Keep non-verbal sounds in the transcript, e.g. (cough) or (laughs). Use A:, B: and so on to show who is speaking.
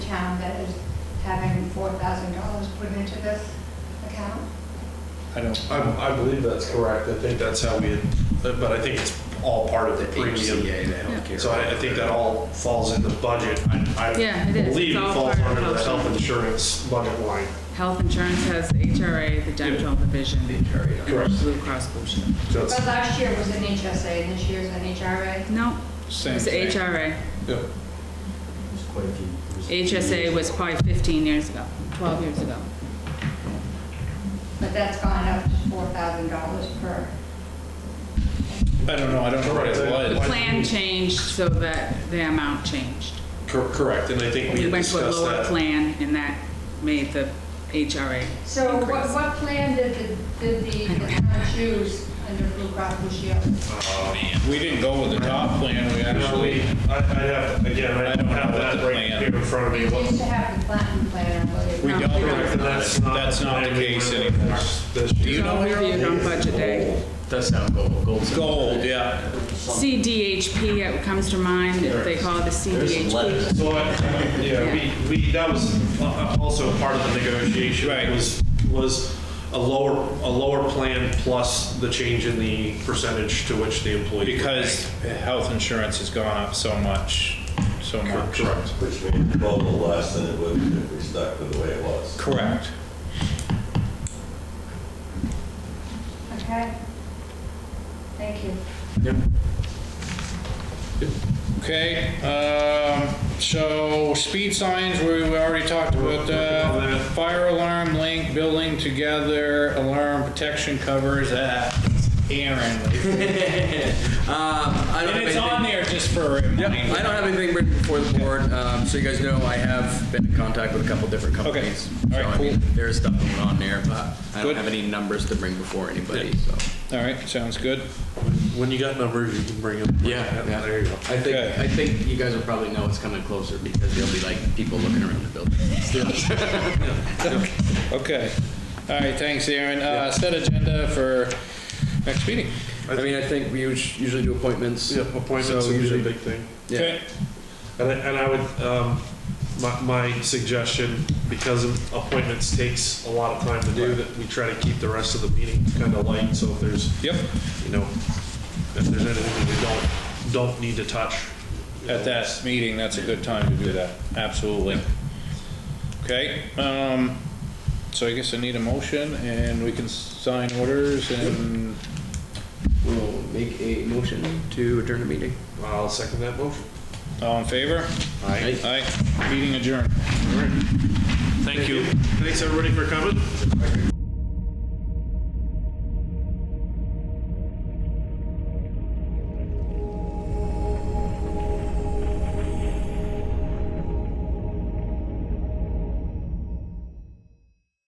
A: town that is having four thousand dollars put into this account?
B: I don't, I, I believe that's correct. I think that's how we, had- but I think it's all part of the premium.
C: HCA, they don't care.
B: So I, I think that all falls in the budget. I,
D: Yeah,
B: I
D: it is. It's
B: believe it
D: all
B: falls
D: part of
B: under the
D: health.
B: health insurance budget line.
D: Health insurance has the HRA, the dental, the vision,
C: The HRA,
D: and Blue Cross Blue Shield.
B: So
A: But
B: it's,
A: last year was an HSA and this year's an HRA.
D: No,
E: Same
D: it's
E: thing.
D: HRA.
B: yeah,
C: There's quite a few. there's-
D: HSA was probably 15 years ago, 12 years ago.
A: But that's gone up to four thousand dollars per.
E: I don't know, I don't know what it
D: The
E: was.
D: plan changed so that the amount changed.
B: cor- correct. And I think we
D: We
B: had
D: went to a
B: discussed
D: lower
B: that.
D: plan and that made the HRA
A: So what,
D: increase.
A: what plan did the, did the the town choose under Blue Cross Blue Shield?
E: We didn't go with the top plan, we actually,
B: I, I'd have, again, I don't have that right
E: plan.
B: here in front of
A: We
B: me.
A: used to have the platinum plan, I believe.
E: we
D: No.
E: don't,
B: Correct, and that's not.
E: that's not the case anymore.
B: This
E: Do you
B: year.
D: So
E: know Harold?
D: reviewed on budget day.
C: Does sound gold, gold's.
E: Gold, yeah.
D: CDHP it comes to mind, they call it the
C: There's some
D: CDHP.
C: letters.
B: So, I- yeah, we, we, that was uh, also part of the negotiation.
E: Right.
B: Was, was a lower, a lower plan plus the change in the percentage to which the employee. would pay.
E: Because health insurance has gone up so much, so much.
B: Correct.
F: Which means total less than it would if we stuck with the way it was.
E: Correct.
A: Okay? Thank you.
E: Okay, um, so speed signs, we we already talked about that. Fire alarm link, building together, alarm protection covers, that.
C: (laughs)
E: Aaron.
C: Um, I don't
E: And
C: have
E: it's on
C: anything-
E: there just for a
C: Yep,
E: reminder.
C: I don't have anything written before the board, um, so you guys know I have been in contact with a couple different companies.
E: All right,
C: So, I mean,
E: cool.
C: There is stuff going on there, but I
E: Good.
C: don't have any numbers to bring before anybody, so.
E: All right, sounds good.
B: When you got numbers, you can bring them. There you go.
C: I think,
E: Okay.
C: I think you guys will probably know it's coming closer because there'll be like people looking around the building.
E: Okay. All right, thanks, Aaron. Uh, set agenda for next meeting.
C: (laughs) I mean, I think we us- usually do appointments.
B: Yeah, appointments
C: So
B: are usually a
C: usually-
B: big thing.
C: Yeah.
E: Okay.
B: And I, and I would, um, my, my suggestion, because appointments takes a lot of time to do, that we try to keep the rest of the meeting kind of light, so if there's
E: Yep,
B: you know, if there's anything that we don't, don't need to touch.
E: at that meeting, that's a good time to do that, absolutely. Okay, um, so I guess I need a motion and we can sign orders and,
C: We'll make a motion to adjourn the meeting.
B: I'll second that motion.
E: all in favor?
C: Aye.
E: Aye, meeting adjourned.
B: Thank you. Thanks, everybody, for coming.